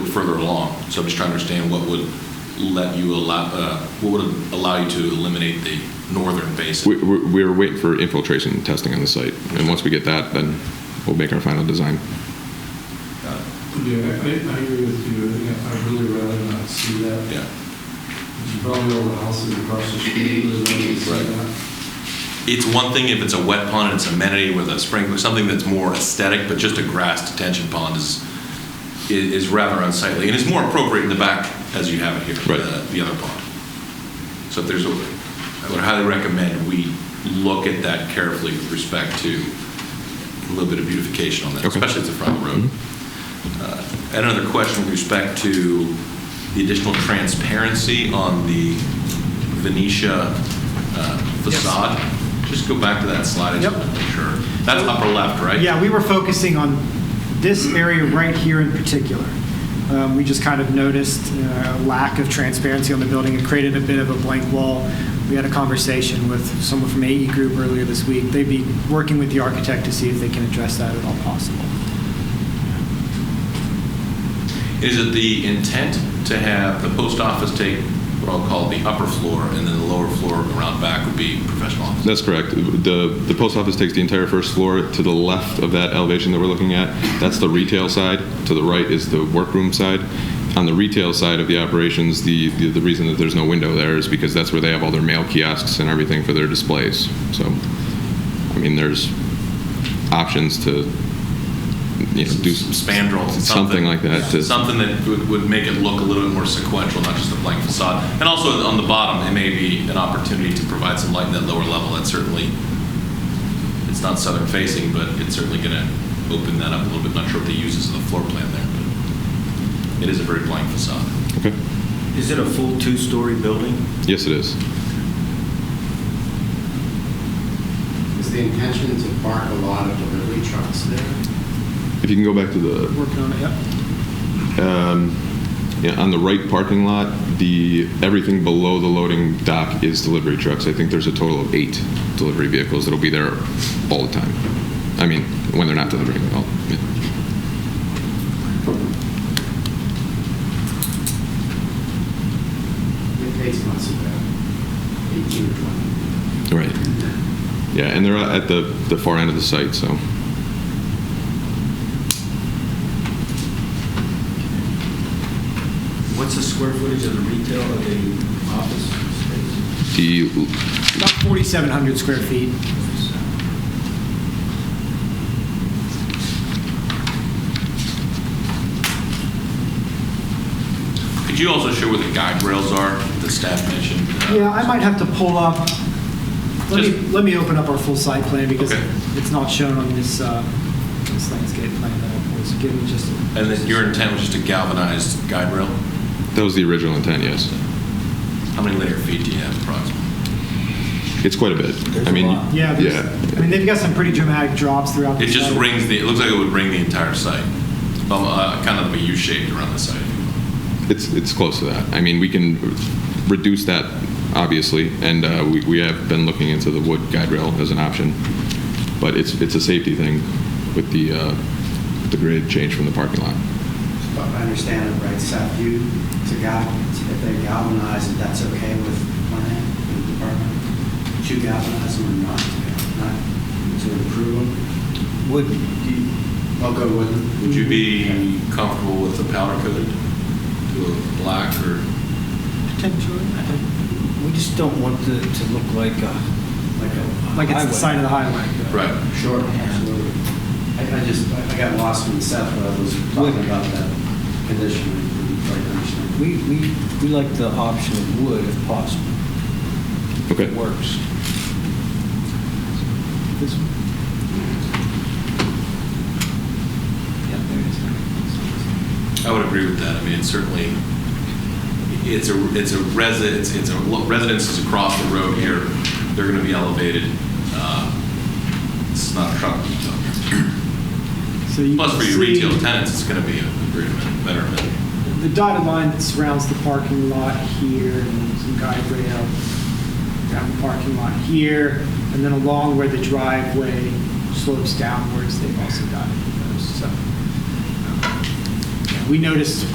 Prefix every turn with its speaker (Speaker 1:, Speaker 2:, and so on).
Speaker 1: further along. So I'm just trying to understand what would let you allow, uh, what would allow you to eliminate the northern basin?
Speaker 2: We, we- we're waiting for infiltration testing on the site, and once we get that, then we'll make our final design.
Speaker 1: Uh,
Speaker 3: Yeah, I, I I agree with you. I think I'd really rather not see that.
Speaker 1: Yeah.
Speaker 3: You Probably all the houses across the street, really don't see
Speaker 1: Right.
Speaker 3: that.
Speaker 1: It's one thing if it's a wet pond and it's amenity with a sprinkler, something that's more aesthetic, but just a grass detention pond is, i- is rather unsightly, and it's more appropriate in the back as you have it here,
Speaker 2: Right.
Speaker 1: the- the other pond. So if there's a, I would highly recommend we look at that carefully with respect to a little bit of beautification on that,
Speaker 2: Okay.
Speaker 1: especially if it's a private road. Uh, I had another question with respect to the additional transparency on the Venetia uh,
Speaker 4: Yes.
Speaker 1: facade. Just go back to that slide, I just
Speaker 4: Yep.
Speaker 1: want to make sure. That's upper left, right?
Speaker 4: Yeah, we were focusing on this area right here in particular. Um, We just kind of noticed uh, a lack of transparency on the building. It created a bit of a blank wall. We had a conversation with someone from AE Group earlier this week. They'd be working with the architect to see if they can address that at all possible.
Speaker 1: Is it the intent to have the post office take what I'll call the upper floor, and then the lower floor around back would be professional office?
Speaker 2: That's correct. The, the post office takes the entire first floor. To the left of that elevation that we're looking at, that's the retail side. To the right is the workroom side. On the retail side of the operations, the, the, the reason that there's no window there is because that's where they have all their mail kiosks and everything for their displays. So, I mean, there's options to, you know, do
Speaker 1: some spandrel, something,
Speaker 2: Something like that to-
Speaker 1: something that would, would make it look a little bit more sequential, not just a blank facade. And also on the bottom, it may be an opportunity to provide some light in that lower level. That's certainly, it's not southern facing, but it's certainly going to open that up a little bit. Not sure what the uses of the floor plan there, but it is a very blank facade.
Speaker 2: Okay.
Speaker 5: Is it a full two-story building?
Speaker 2: Yes, it is.
Speaker 6: Is the intention to park a lot of delivery trucks there?
Speaker 2: If you can go back to the
Speaker 4: Working on it, yep.
Speaker 2: um, yeah, on the right parking lot, the, everything below the loading dock is delivery trucks. I think there's a total of eight delivery vehicles that'll be there all the time. I mean, when they're not delivering, all, yeah.
Speaker 6: It takes months about 18 or 20.
Speaker 2: Right. Yeah, and they're at the, the far end of the site, so.
Speaker 5: What's the square footage of the retail of the office space?
Speaker 2: The,
Speaker 4: About 4,700 square feet.
Speaker 1: Could you also show where the guide rails are that staff mentioned? Uh,
Speaker 4: Yeah, I might have to pull up, let me,
Speaker 1: Just-
Speaker 4: let me open up our full site plan because
Speaker 1: Okay.
Speaker 4: it's not shown on this, uh, this landscape plan that I pulled. So give me just. a-
Speaker 1: And then your intent was just a galvanized guide rail?
Speaker 2: that was the original intent, yes.
Speaker 1: How many linear feet do you have approximately?
Speaker 2: It's quite a bit. I mean,
Speaker 4: Yeah, there's- I mean,
Speaker 2: yeah.
Speaker 4: they've got some pretty dramatic drops throughout. the
Speaker 1: It just
Speaker 4: site.
Speaker 1: rings the. It looks like it would ring the entire site, um, uh, kind of a U shaped around the site.
Speaker 2: It's, it's close to that. I mean, we can reduce that, obviously, and uh, we, we have been looking into the wood guide rail as an option, but it's, it's a safety thing with the, uh, the grade change from the parking lot.
Speaker 6: If I understand it right, Seth, you, to gal, if they galvanize it, that's okay with plan, with the department? Would you galvanize them or not? Not to improve them?
Speaker 5: Would,
Speaker 6: I'll go with them.
Speaker 1: Would you be comfortable with the powder coated to a black or?
Speaker 4: Potentially.
Speaker 5: we just don't want it to look like uh, a...
Speaker 6: Like a,
Speaker 4: Like it's the
Speaker 5: Highway.
Speaker 4: side of the highway.
Speaker 1: Right.
Speaker 6: sure, absolutely. I, I just, I I got lost when Seth was talking about that condition. I didn't quite understand.
Speaker 5: We, we, we like the option of wood if possible. If
Speaker 2: Okay.
Speaker 5: It works.
Speaker 4: This one. Yeah, there
Speaker 1: I
Speaker 4: it
Speaker 1: would agree with that. I mean, it's certainly, it's a, it's a residence, it's a, well, residences across the road here, they're going to be elevated. Uh, It's not a truck.
Speaker 4: is. So you
Speaker 1: Plus for
Speaker 4: can
Speaker 1: your
Speaker 4: see
Speaker 1: retail tenants, it's going to be a very better amenity.
Speaker 4: The dotted line that surrounds the parking lot here and some guide rail down the parking lot here. And then along where the driveway slopes downwards, they've also dotted those. So um, yeah, we noticed